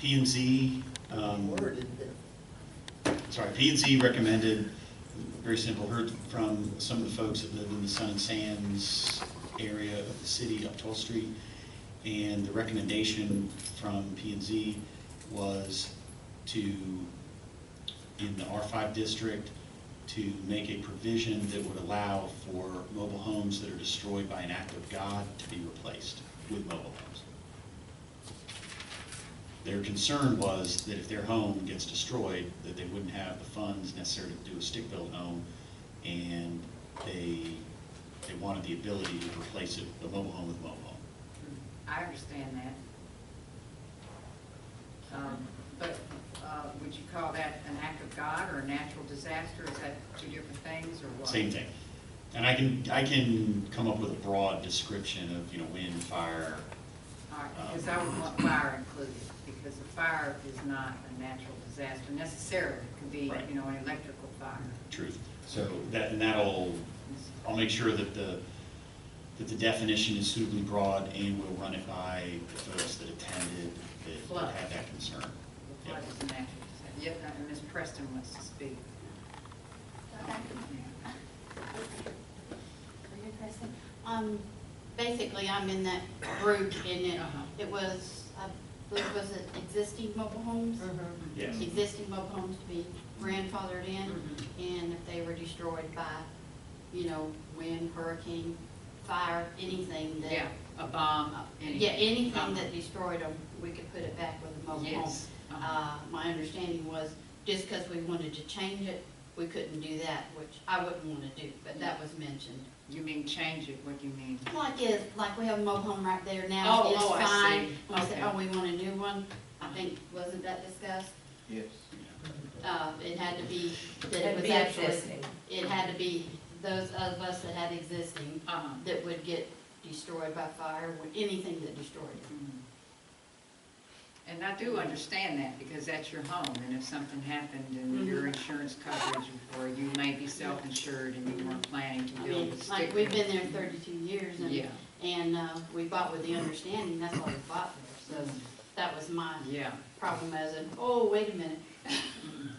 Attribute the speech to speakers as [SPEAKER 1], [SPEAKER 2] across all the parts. [SPEAKER 1] P and Z, um,
[SPEAKER 2] Worded that
[SPEAKER 1] sorry, P and Z recommended, very simple, heard from some of the folks that live in the Sun and Sands area of the city up 12th Street, and the recommendation from P and Z was to, in the R5 district, to make a provision that would allow for mobile homes that are destroyed by an act of God to be replaced with mobile homes. Their concern was that if their home gets destroyed, that they wouldn't have the funds necessary to do a stick-built home, and they, they wanted the ability to replace it, the mobile home with mobile home.
[SPEAKER 3] I understand that. Um, But uh, would you call that an act of God or a natural disaster? Is that two different things or what?
[SPEAKER 1] Same thing. And I can, I can come up with a broad description of, you know, wind, fire.
[SPEAKER 3] All right, because I would want fire included, because a fire is not a natural disaster necessarily. It could be,
[SPEAKER 1] Right.
[SPEAKER 3] you know, an electrical fire.
[SPEAKER 1] Truth. So that, and that'll, I'll make sure that the, that the definition is suitably broad, and we'll run it by the folks that attended, that
[SPEAKER 3] Flood.
[SPEAKER 1] had that concern.
[SPEAKER 3] The flood is a natural disaster. Yep, and Ms. Preston wants to speak.
[SPEAKER 4] Career person. Um, basically, I'm in that group in it.
[SPEAKER 3] Uh-huh.
[SPEAKER 4] It was, I believe, was it existing mobile homes?
[SPEAKER 3] Mm-hmm.
[SPEAKER 1] Yes.
[SPEAKER 4] Existing mobile homes to be grandfathered in, and if they were destroyed by, you know, wind, hurricane, fire, anything that. uh,
[SPEAKER 3] Yeah, a bomb, anything. Uh-huh. Oh,
[SPEAKER 4] Yeah, anything that destroyed them, we could put it back with a mobile home.
[SPEAKER 3] Yes. Uh-huh.
[SPEAKER 4] Uh, my understanding was, just because we wanted to change it, we couldn't do that, which I wouldn't want to do, but that was mentioned.
[SPEAKER 3] You mean change it, what do you mean?
[SPEAKER 4] Like is, like we have a mobile home right there now,
[SPEAKER 3] Oh,
[SPEAKER 4] it's
[SPEAKER 3] oh, I
[SPEAKER 4] fine.
[SPEAKER 3] see.
[SPEAKER 4] We said,
[SPEAKER 3] Okay.
[SPEAKER 4] oh, we want a new one, I think, wasn't that discussed?
[SPEAKER 5] Yes.
[SPEAKER 4] Uh, it had to be, that
[SPEAKER 6] It'd
[SPEAKER 4] it was
[SPEAKER 6] be
[SPEAKER 4] actually,
[SPEAKER 6] existing.
[SPEAKER 4] it had to be those of us that had existing
[SPEAKER 3] Uh-huh.
[SPEAKER 4] that would get destroyed by fire, or anything that destroyed it.
[SPEAKER 3] Mm-hmm. And I do understand that, because that's your home, and if something happened
[SPEAKER 4] Mm-hmm.
[SPEAKER 3] and your insurance coverage, or you may be self-insured and you weren't planning to
[SPEAKER 4] I
[SPEAKER 3] build
[SPEAKER 4] mean,
[SPEAKER 3] a stick.
[SPEAKER 4] like, we've been there thirty-two years and,
[SPEAKER 3] Yeah,
[SPEAKER 4] and, uh, we bought with the understanding, that's why we bought there, so that was my
[SPEAKER 3] yeah,
[SPEAKER 4] problem as in, oh, wait a minute,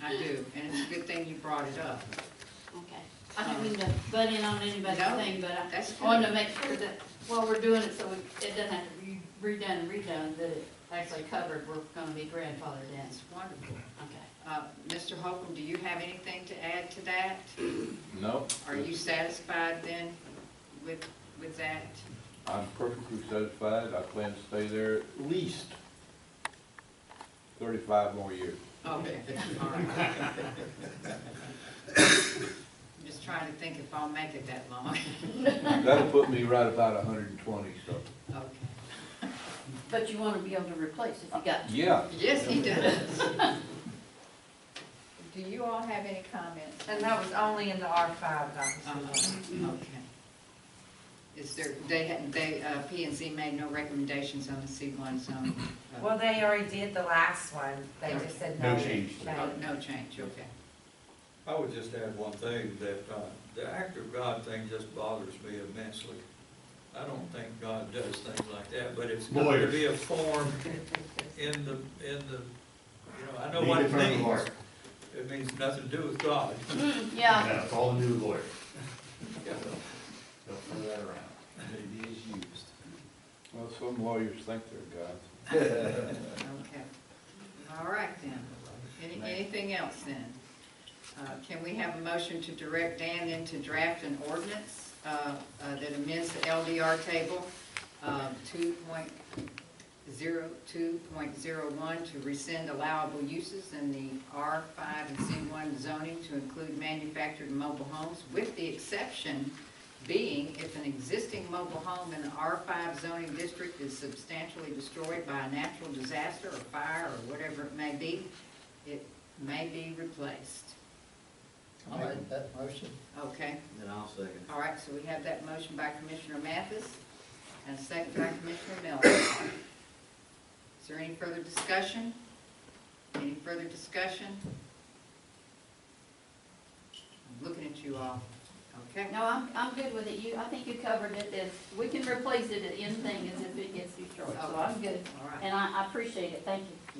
[SPEAKER 3] I do, and it's a good thing you brought it up.
[SPEAKER 4] Okay, I don't mean to butt in on anybody's
[SPEAKER 3] No,
[SPEAKER 4] thing, but I
[SPEAKER 3] that's
[SPEAKER 4] wanted
[SPEAKER 3] good.
[SPEAKER 4] to make sure that while we're doing it, so we- it doesn't have to be redone and redone, that it actually covered, we're gonna be grandfathered in.
[SPEAKER 3] That's wonderful.
[SPEAKER 4] Okay.
[SPEAKER 3] Uh, Mr. Holcomb, do you have anything to add to that?
[SPEAKER 5] No?
[SPEAKER 3] Are you satisfied then with, with that?
[SPEAKER 5] I'm perfectly satisfied. I plan to stay there at least thirty-five more years.
[SPEAKER 3] Okay, all right. Just trying to think if I'll make it that long.
[SPEAKER 5] That'll put me right about hundred and twenty, so.
[SPEAKER 3] Okay.
[SPEAKER 6] But you wanna be able to replace if you got.
[SPEAKER 5] Yeah.
[SPEAKER 3] Yes, he does.
[SPEAKER 6] Do you all have any comments? And that was only in the R five, obviously.
[SPEAKER 3] Uh, Okay. Is there, they hadn't, they, uh, P and Z made no recommendations on the C one zone? uh,
[SPEAKER 6] Well, they already did the last one, they just said no.
[SPEAKER 1] No change.
[SPEAKER 3] oh, No change, okay.
[SPEAKER 7] I would just add one thing, that uh, the act of God thing just bothers me immensely. I don't think God does things like that, but it's got to be a form in the, in the, you know, I know what it means. It means nothing to do with God.
[SPEAKER 4] Yeah,
[SPEAKER 8] That's all the new lawyer.
[SPEAKER 7] Yeah.
[SPEAKER 8] They'll throw that around. It is used.
[SPEAKER 5] Well, some lawyers think they're gods.
[SPEAKER 3] Okay. All right then. Any- Anything else then? Uh, Can we have a motion to direct Dan then to draft an ordinance uh, uh, that amends the LDR table uh, 2.02.01 to rescind allowable uses in the R5 and C1 zoning to include manufactured mobile homes with the exception being if an existing mobile home in the R5 zoning district is substantially destroyed by a natural disaster or fire or whatever it may be, it may be replaced.
[SPEAKER 2] I'll make that motion.
[SPEAKER 3] Okay,
[SPEAKER 9] Then I'll second it.
[SPEAKER 3] all right, so we have that motion by Commissioner Mathis and a second by Commissioner Miller. Is there any further discussion? Any further discussion? I'm looking at you all. Okay,
[SPEAKER 4] no, I'm, I'm good with it, you, I think you covered it, as, we can replace it at anything as if it gets destroyed, so I'm good.
[SPEAKER 3] all right.
[SPEAKER 4] And I, I appreciate it, thank you.